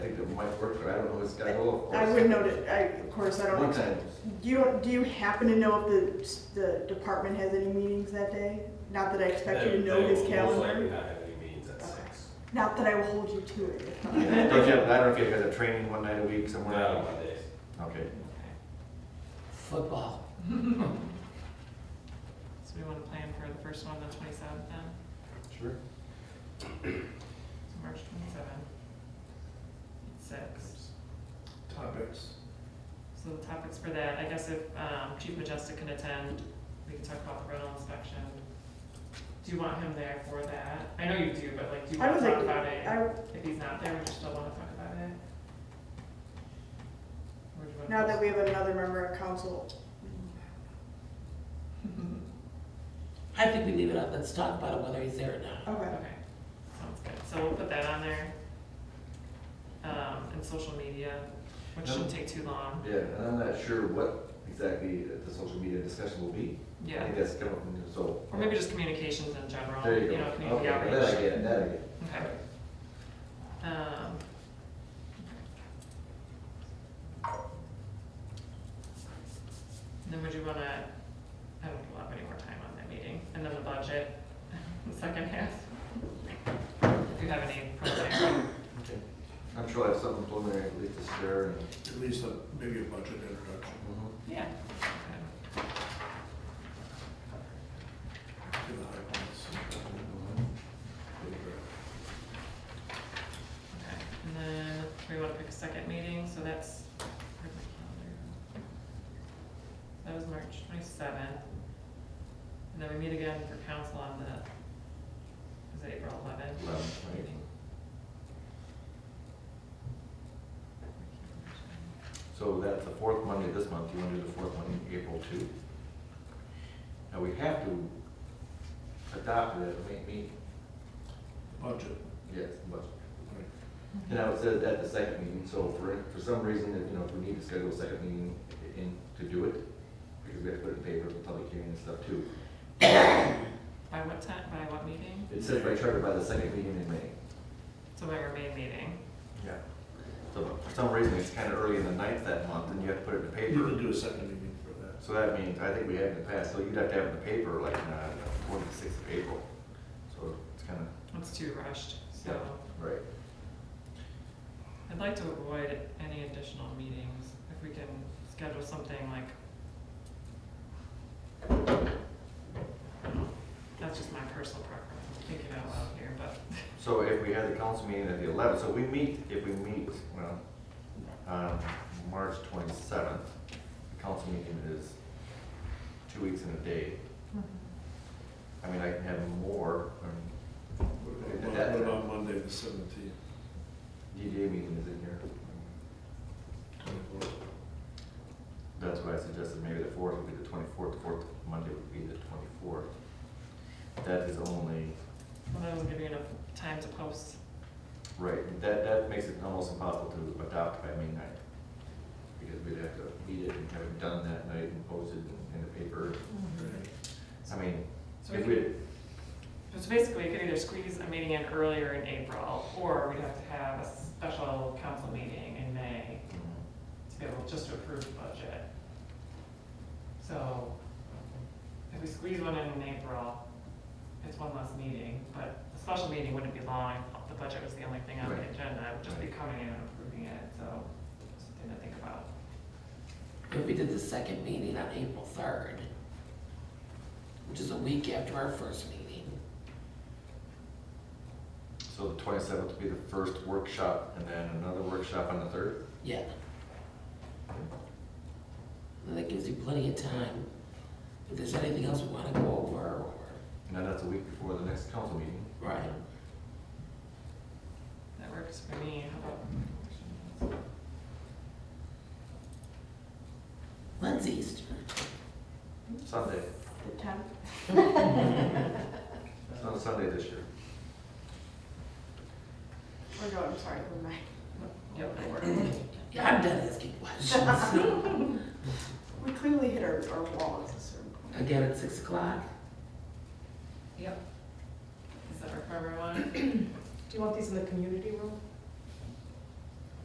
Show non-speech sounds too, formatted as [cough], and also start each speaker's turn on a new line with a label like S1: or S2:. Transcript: S1: might work, but I don't know, it's got to go, of course.
S2: I would note it, I, of course, I
S1: One
S2: don't,
S1: time,
S2: do you, do you happen to know if the, the department has any meetings that day? Not that I expect you to
S3: They-
S2: know his
S3: They will most likely
S2: calendar,
S3: not have any meetings at six.
S2: not that I will hold you to it.
S1: Yeah, [laughs] don't you have, I don't know if you guys have training one night a week somewhere.
S3: Not on Mondays.
S1: Okay.
S4: Football.
S5: [laughs] So we want to plan for the first one, the twenty-seventh then,
S1: Sure.
S5: so March twenty-seventh. Six.
S6: topics.
S5: So the topics for that, I guess if um, Chief Majestic can attend, we can talk about the rental inspection. Do you want him there for that? I know you do, but like, do you
S2: I
S5: want
S2: would
S5: to talk
S2: like,
S5: about
S2: I,
S5: it? If he's not there, would you still want to talk about it? Or do you want to
S2: now that
S5: post-
S2: we have another member of council,
S5: [laughs]
S4: I think we leave it up. Let's talk about it, whether he's there or not.
S2: okay.
S5: Okay, sounds good. So we'll put that on there. Um, and social media, which shouldn't take too long.
S1: Yeah, and I'm not sure what exactly the social media discussion will be. I
S5: Yeah,
S1: think that's kind of, so.
S5: or maybe just communications in general,
S1: There you go.
S5: you know, community
S1: Okay,
S5: outreach.
S1: That I get, that I get.
S5: Okay. Um, Then would you wanna, I don't think we'll have any more time on that meeting, and then the budget, [laughs] the second half. If you have any preliminary,
S1: Okay. I'm sure I have something preliminary at least to share and. mm-hmm.
S6: At least a, maybe a budget introduction,
S5: yeah.
S6: to the high points.
S1: Mm-hmm.
S5: Okay, and then we wanna pick a second meeting, so that's, where's my calendar? That was March twenty-seventh. And then we meet again for council on the, is it April eleventh?
S1: Well, right.
S5: meeting?
S1: So that's the fourth Monday this month, you want to do the fourth Monday in April too? Now, we have to adopt it, make me,
S6: Budget,
S1: yes, but,
S6: right.
S1: and I was at at the second meeting, so for, for some reason, if, you know, if we need to schedule a second meeting in, to do it, because we have to put it in paper, for public hearing and stuff too.
S5: By what time, by what meeting?
S1: It says by charter by the second meeting in May.
S5: So by our main meeting,
S1: Yeah. So for some reason, it's kind of early in the ninth that month, and you have to put it in
S6: You
S1: paper.
S6: can do a second meeting for that.
S1: So that means, I think we had in the past, so you'd have to have it in the paper like on the twenty-sixth of April. So it's kind of,
S5: it's too rushed, so
S1: right.
S5: I'd like to avoid any additional meetings if we can schedule something like. That's just my personal preference, I'm thinking out loud here, but
S1: So if we had the council meeting at the eleventh, so we meet, if we meet, well, on March twenty-seventh, the council meeting is two weeks and a day. I mean, I can have more, um,
S6: What
S1: At
S6: about-
S1: that
S6: what
S1: time.
S6: about Monday, the seventeenth,
S1: DDA meeting is in here.
S6: twenty-fourth?
S1: That's why I suggested maybe the fourth would be the twenty-fourth, the fourth Monday would be the twenty-fourth. That is only,
S5: well, that will give you enough time to post.
S1: right, that, that makes it almost impossible to adopt by midnight. Because we'd have to meet it and have it done that night and posted in, in the paper.
S6: Mm-hmm.
S1: I mean,
S5: So we
S1: if
S5: could-
S1: we,
S5: So basically, you could either squeeze a meeting in earlier in April, or we'd have to have a special council meeting in May to be able just to approve the budget. So if we squeeze one in in April, it's one less meeting, but the special meeting wouldn't be long. if The budget was the only thing on the
S1: Right.
S5: agenda, it would just be coming in and approving it, so something to think about.
S4: If we did the second meeting on April third, which is a week after our first meeting,
S1: so the twenty-seventh would be the first workshop and then another workshop on the third?
S4: yeah. And that gives you plenty of time. If there's anything else we wanna go over, or,
S1: And then that's a week before the next council meeting.
S4: right,
S5: That works for me, how about?
S4: when's
S2: [laughs]
S4: Easter?
S1: Sunday,
S2: The tenth,
S1: it's on Sunday this year.
S2: or no, I'm sorry, the ninth.
S5: Yep, that works.
S4: Yeah, I'm done asking
S2: [laughs]
S4: questions.
S2: We clearly hit our, our wall at a certain point.
S4: Again at six o'clock?
S5: Yep. Does that work for everyone?
S7: Do you want these in the community room?